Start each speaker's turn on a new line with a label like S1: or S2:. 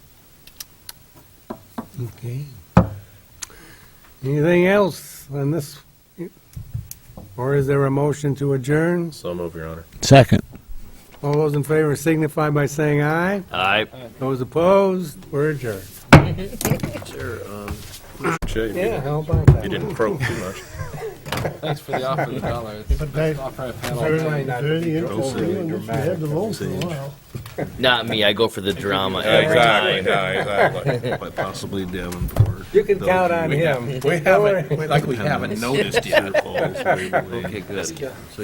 S1: Okay. Anything else on this? Or is there a motion to adjourn?
S2: So move, Your Honor.
S3: Second.
S1: All those in favor signify by saying aye.
S2: Aye.
S1: Those opposed, we're adjourned.
S2: Sure, you
S1: Yeah,
S2: didn't-
S1: how about that?
S2: you didn't probe too much.
S4: Thanks for the offer, of the dollar. It's the best offer I've had all
S1: Very
S4: day.
S1: might not be overly dramatic.
S5: Not me. I go for the drama every
S2: Exactly,
S5: time.
S2: yeah, exactly.
S6: But possibly Devin for.
S1: You can count on him.
S4: We haven't, like we haven't noticed yet.
S6: Okay, good.